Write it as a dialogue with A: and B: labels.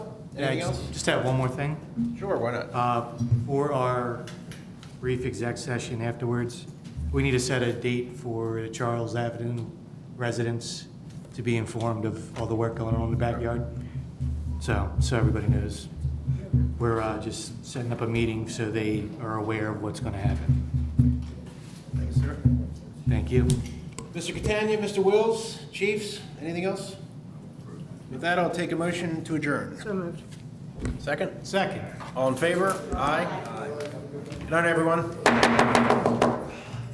A: Yeah, I
B: Anything
A: just-
B: else?
A: Just have one more thing.
B: Sure, why not?
A: Uh, For our brief exec session afterwards, we need to set a date for the Charles Avenue residents to be informed of all the work going on in the backyard. So, so everybody knows. We're uh, just setting up a meeting so they are aware of what's going to happen.
B: Thanks, sir.
A: Thank you.
B: Mr. Catania, Mr. Wills, chiefs, anything else? With that, I'll take a motion to adjourn.
C: So moved.
B: Second?
A: Second.
B: All in favor? Aye. Good night, everyone.